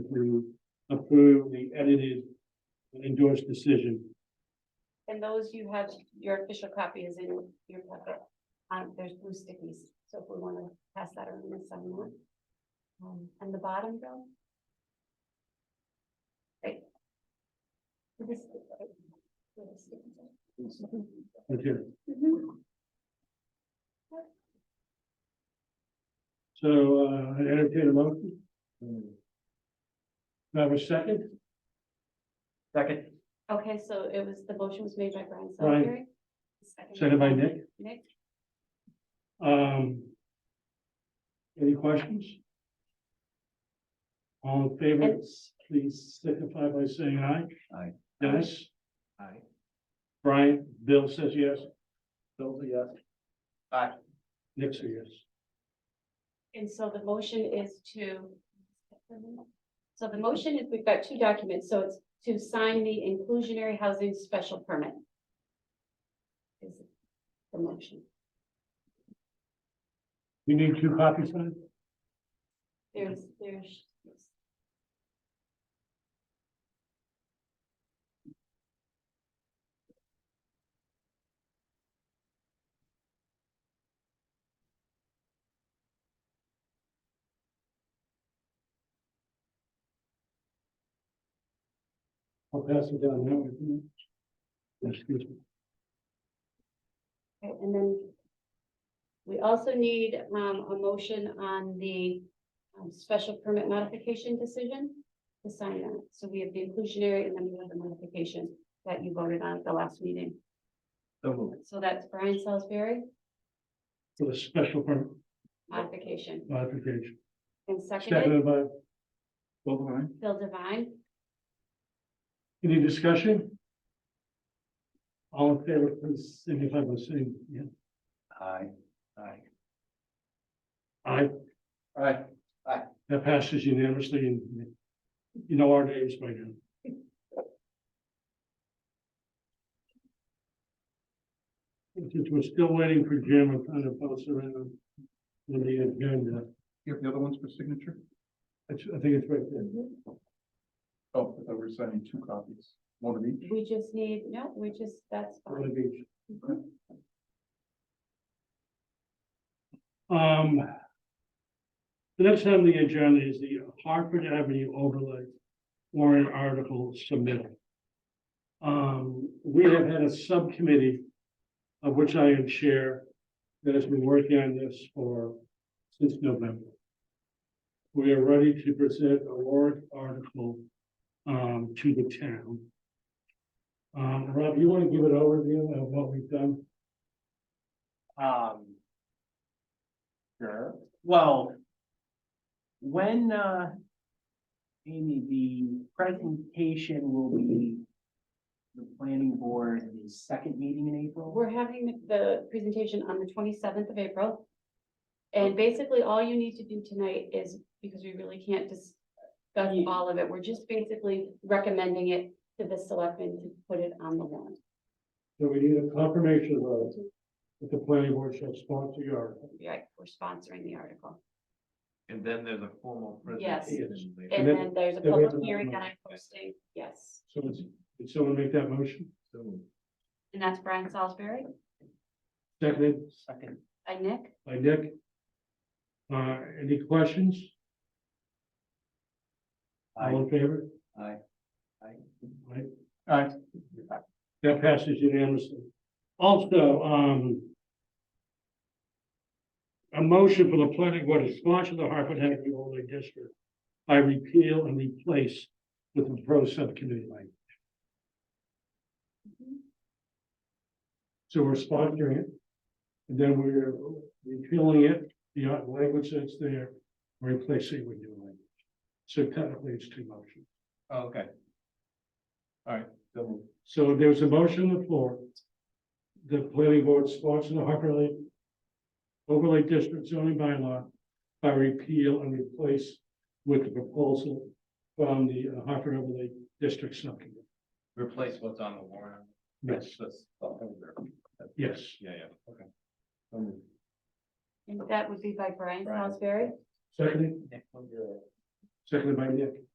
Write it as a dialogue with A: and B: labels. A: to approve the edited endorsed decision.
B: And those you have, your official copy is in your packet. Um, there's blue stickies, so if we wanna pass that around to someone. Um, and the bottom, Bill? Right. This is- where the stickies are.
A: Okay, Mm-hmm.
B: Mhm.
A: so uh, I entertain a motion. Do I have a second?
C: Second,
B: Okay, so it was, the motion was made by Brian
A: Brian.
B: Salisbury.
A: Second by Nick.
B: Nick,
A: Um. Any questions? All in favor,
B: And-
A: please signify by saying aye.
C: Aye.
A: Dennis,
C: aye.
A: Brian, Bill says yes,
C: Bill, yes. Aye.
A: Nick says yes.
B: and so the motion is to. So the motion is, we've got two documents, so it's to sign the inclusionary housing special permit. Is the motion.
A: You need two copies of it?
B: There's, there's.
A: I'll pass it down now. isn't it? Excuse me.
B: Okay, And then we also need um a motion on the um special permit modification decision to sign that. So we have the inclusionary and then we have the modification that you voted on at the last meeting.
C: So moved.
B: So that's Brian Salisbury
A: For the special permit
B: modification
A: modification.
B: and seconded
A: Seconded by,
C: Overline.
B: Phil Divine.
A: any discussion? All in favor, please signify by saying, yeah,
C: Aye. Aye.
A: aye.
C: Aye.
A: That passes unanimously and you know our names by now. Since we're still waiting for Jim, I'm kind of bouncing around on the agenda.
D: You have the other ones for signature?
A: It's- I think it's right there.
D: Oh, I thought we were signing two copies, one of each.
B: We just need, no, we just, that's
A: One
B: fine.
A: of each. Um. The next item on the agenda is the Hartford Avenue overlay warrant article submitted. Um, we have had a subcommittee of which I am chair that has been working on this for since November. We are ready to present a warrant article um to the town. Um, Rob, you want to give an overview of what we've done?
E: Um. Sure, well. When, uh. Amy, the presentation will be. The planning board, the second meeting in April.
B: We're having the presentation on the twenty-seventh of April. And basically, all you need to do tonight is, because we really can't discuss
E: Ye-
B: all of it, we're just basically recommending it to the selectmen to put it on the warrant.
A: So we need a confirmation vote that the planning board shall sponsor your article.
B: Right, we're sponsoring the article.
C: And then there's a formal
B: Yes.
C: presentation. later.
B: And
A: then-
B: then there's a
A: then we have
B: public
A: another
B: hearing that
A: one.
B: I'm posting, yes.
A: So it's, did someone make that motion?
C: So moved.
B: And that's Brian Salisbury,
A: Seconded
E: Second,
B: by Nick,
A: by Nick. Uh, any questions?
C: Aye.
A: All in favor?
C: Aye. Aye.
A: Aye.
D: Aye.
A: That passes unanimously. Also, um. A motion for the planning board to sponsor the Hartford Avenue overlay district by repeal and replace with the pro subcommittee language. So we're sponsoring it. And then we're repealing it, the language that's there, replacing with new language. So technically it's two motions.
E: Oh,
D: Okay. All right, so moved.
A: So there's a motion on the floor. The planning board sponsor the Harper Lake overlay district zoning bylaw by repeal and replace with the proposal from the uh, Harper overlay district subcommittee.
C: Replace what's on the warrant.
A: Yes,
C: That's all there.
A: yes.
C: Yeah, yeah.
D: So moved.
B: and that would be by Brian
C: Brian.
B: Salisbury.
A: Seconded,
E: Nick,
A: seconded by Nick.